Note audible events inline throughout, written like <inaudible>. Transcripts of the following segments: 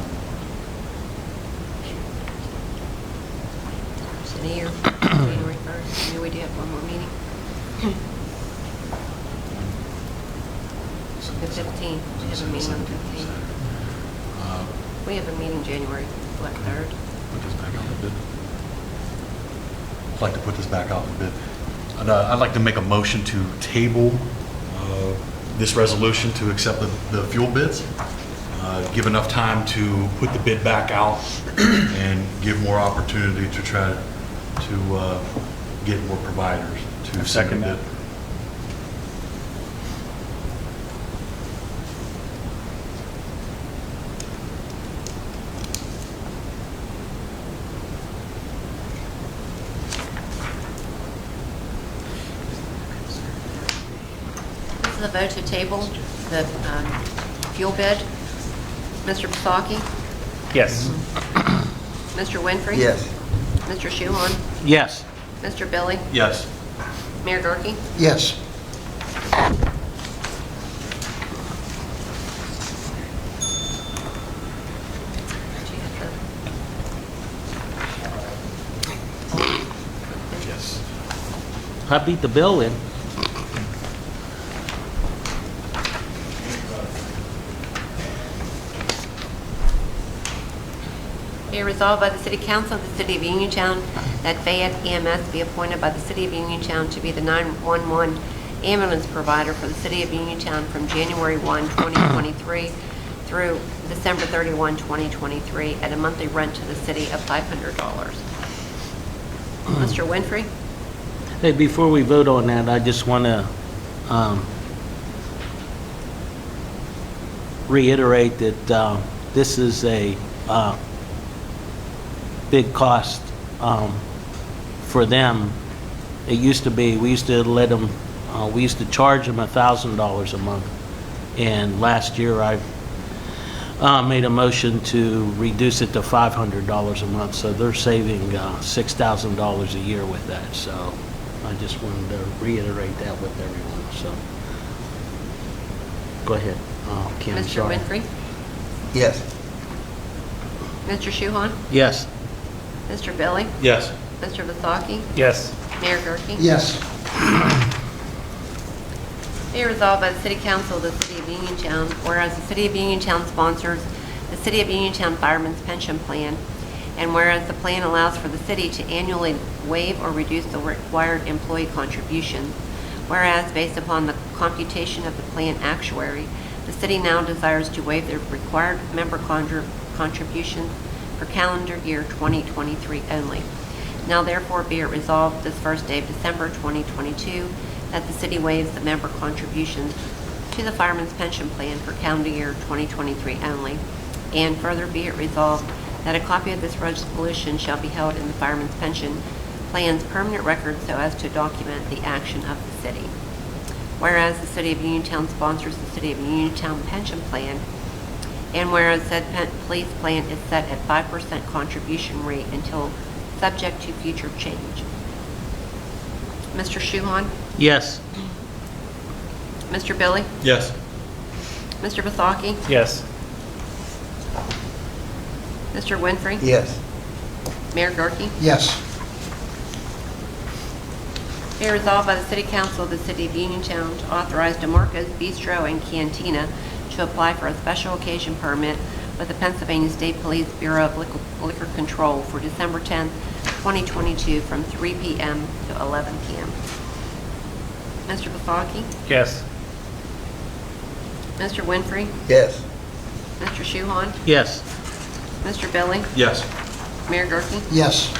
<clears throat> you have one more meeting? The 15th, we have a meeting on the 15th. Uh, We have a meeting January, what, 3rd? Put this back out for bid. I'd like to put this back out for bid. And, uh, I'd like to make a motion to table uh, this resolution to accept the- the fuel bids, uh, give enough time to put the bid back out <clears throat> and give more opportunity to try to uh, get more providers to second bid. This is a vote to table the um, fuel bid. Mr. Basaki? Yes. Mr. Winfrey? Yes. Mr. Shuhon? Yes. Mr. Billy? Yes. Mayor Gurke? Yes. Yes. I beat the bill in. Be resolved by the City Council of the City of Uniontown that Fayette EMS be appointed by the City of Uniontown to be the 911 ambulance provider for the City of Uniontown from January 1, 2023 through December 31, 2023, at a monthly rent to the city of $500. Mr. Winfrey? Hey, before we vote on that, I just want to um, reiterate that uh, this is a uh, big cost um, for them. It used to be, we used to let them, uh, we used to charge them $1,000 a month. And last year, I uh, made a motion to reduce it to $500 a month, so they're saving uh, $6,000 a year with that, so I just wanted to reiterate that with everyone, so. Go ahead, uh, Kim, Mr. sorry. Winfrey? Yes. Mr. Shuhon? Yes. Mr. Billy? Yes. Mr. Vasaki? Yes. Mayor Gurke? Yes. Be resolved by the City Council of the City of Uniontown, whereas the City of Uniontown sponsors the City of Uniontown Fireman's Pension Plan, and whereas the plan allows for the city to annually waive or reduce the required employee contributions, whereas based upon the computation of the plan actuary, the city now desires to waive the required member contr- contributions for calendar year 2023 only. Now therefore be it resolved this first day of December 2022 that the city waives the member contributions to the Fireman's Pension Plan for calendar year 2023 only. And further be it resolved that a copy of this resolution shall be held in the Fireman's Pension Plan's permanent record so as to document the action of the city. Whereas the City of Uniontown sponsors the City of Uniontown Pension Plan, and whereas said pen- police plan is set at 5% contribution rate until subject to future change. Mr. Shuhon? Yes. Mr. Billy? Yes. Mr. Vasaki? Yes. Mr. Winfrey? Yes. Mayor Gurke? Yes. Be resolved by the City Council of the City of Uniontown to authorize DeMarco's Bistro and Cantina to apply for a special occasion permit with the Pennsylvania State Police Bureau of Liquor- Liquor Control for December 10th, 2022, from 3 p.m. to 11 p.m. Mr. Vasaki? Yes. Mr. Winfrey? Yes. Mr. Shuhon? Yes. Mr. Billy? Yes. Mayor Gurke? Yes.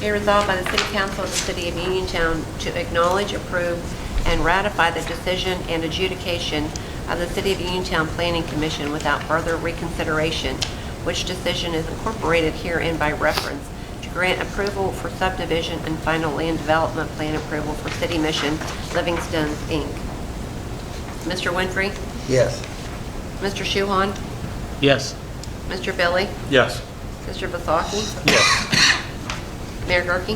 Be resolved by the City Council of the City of Uniontown to acknowledge, approve, and ratify the decision and adjudication of the City of Uniontown Planning Commission without further reconsideration, which decision is incorporated herein by reference to grant approval for subdivision and final land development plan approval for City Mission Livingstone, Inc. Mr. Winfrey? Yes. Mr. Shuhon? Yes. Mr. Billy? Yes. Mr. Vasaki? Yes. Mayor Gurke?